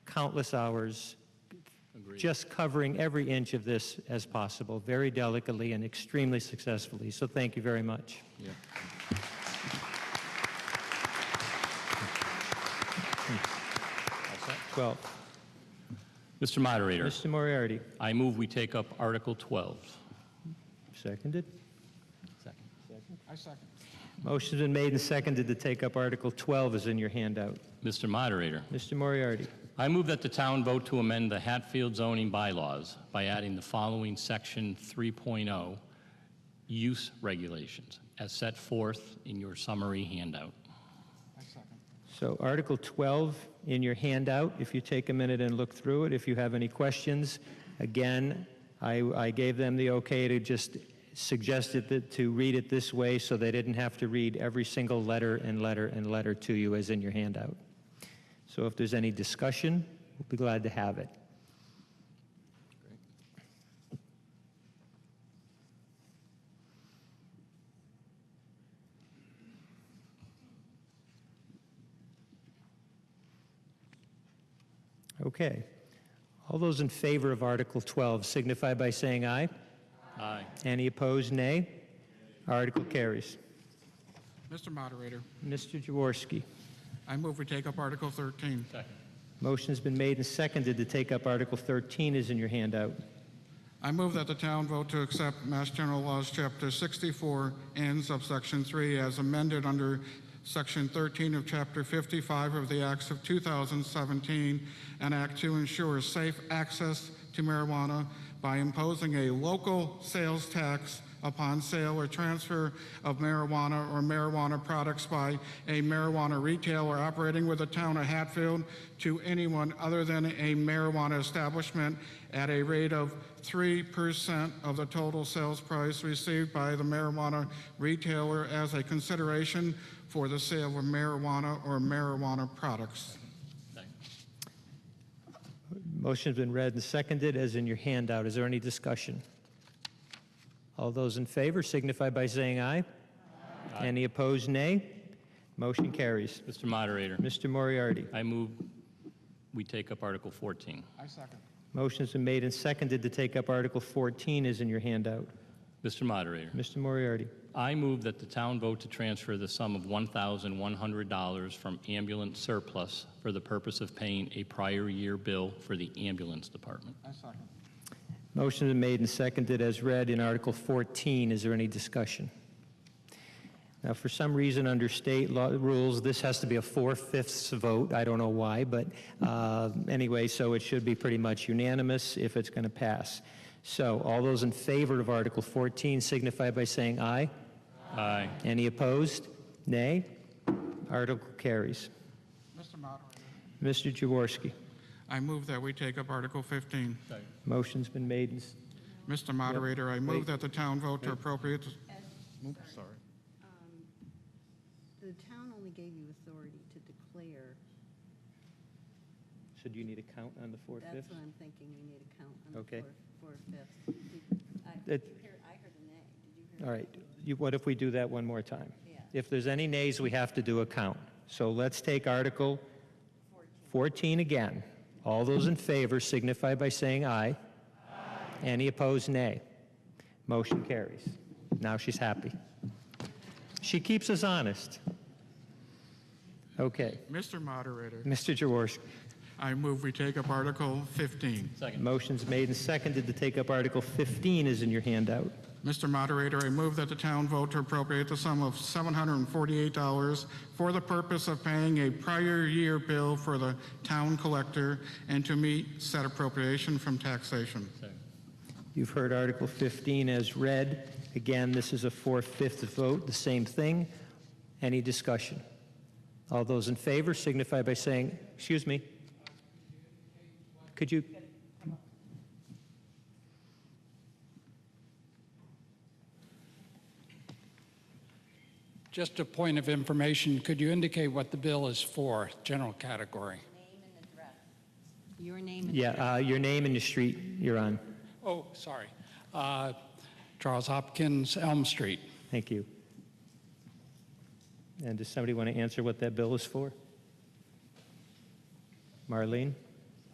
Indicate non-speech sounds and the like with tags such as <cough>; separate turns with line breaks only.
countless hours just covering every inch of this as possible, very delicately and extremely successfully. So thank you very much. <laughs>
Yeah.
Twelve.
Mr. Moderator,
Mr. Moriarty,
I move we take up Article 12.
seconded.
I second.
Motion's been made and seconded to take up Article 12 is in your handout.
Mr. Moderator,
Mr. Moriarty,
I move that the town vote to amend the Hatfield zoning bylaws by adding the following Section 3.0 use regulations as set forth in your summary handout.
I second.
so Article 12 in your handout, if you take a minute and look through it, if you have any questions, again, I, I gave them the okay to just suggested that to read it this way so they didn't have to read every single letter and letter and letter to you as in your handout. So if there's any discussion, we'll be glad to have it. Okay. All those in favor of Article 12 signify by saying aye.
Aye.
Any opposed, nay? Article carries.
Mr. Moderator,
Mr. Jaworski,
I move we take up Article 13.
Second.
motion's been made and seconded to take up Article 13 is in your handout.
I move that the town vote to accept Mass General Laws, Chapter 64 and subsection 3 as amended under Section 13 of Chapter 55 of the Acts of 2017, an act to ensure safe access to marijuana by imposing a local sales tax upon sale or transfer of marijuana or marijuana products by a marijuana retailer operating with the town of Hatfield to anyone other than a marijuana establishment at a rate of 3% of the total sales price received by the marijuana retailer as a consideration for the sale of marijuana or marijuana products.
Motion's been read and seconded as in your handout. Is there any discussion? All those in favor signify by saying aye. Any opposed, nay? Motion carries.
Mr. Moderator,
Mr. Moriarty,
I move we take up Article 14.
I second.
motion's been made and seconded to take up Article 14 is in your handout.
Mr. Moderator,
Mr. Moriarty,
I move that the town vote to transfer the sum of $1,100 from ambulance surplus for the purpose of paying a prior year bill for the ambulance department.
I second.
Motion is made and seconded as read in Article 14. Is there any discussion? Now, for some reason, under state law rules, this has to be a four-fifths vote. I don't know why, but uh, anyway, so it should be pretty much unanimous if it's going to pass. So all those in favor of Article 14 signify by saying aye.
Aye.
Any opposed? Nay. Article carries.
Mr. Moderator.
Mr. Jaworski,
I move that we take up Article 15.
motion's been made and s-
Mr. Moderator, I
Wait.
move that the town vote to appropriate, oops, sorry.
The town only gave you authority to declare.
so do you need a count on the
That's
four-fifths?
what I'm thinking, we need a count on the
Okay.
four, four-fifths. Did- I
That-
did you hear- I heard a nay. Did you hear?
All right, you, what if we do that one more time?
Yeah.
If there's any nays, we have to do a count. So let's take Article 14 again. All those in favor signify by saying aye. Any opposed, nay. Motion carries. Now she's happy. She keeps us honest. Okay,
Mr. Moderator,
Mr. Jaworski,
I move we take up Article 15.
Second.
motion's made and seconded to take up Article 15 is in your handout.
Mr. Moderator, I move that the town vote to appropriate the sum of $748 for the purpose of paying a prior year bill for the town collector and to meet said appropriation from taxation.
You've heard Article 15 as read. Again, this is a four-fifths vote, the same thing. Any discussion? All those in favor signify by saying, excuse me. Could you?
Just a point of information, could you indicate what the bill is for, general category?
Name and address. Your name and address.
Yeah, uh, your name and your street you're on.
Oh, sorry. Uh, Charles Hopkins, Elm Street.
Thank you. And does somebody want to answer what that bill is for? Marlene?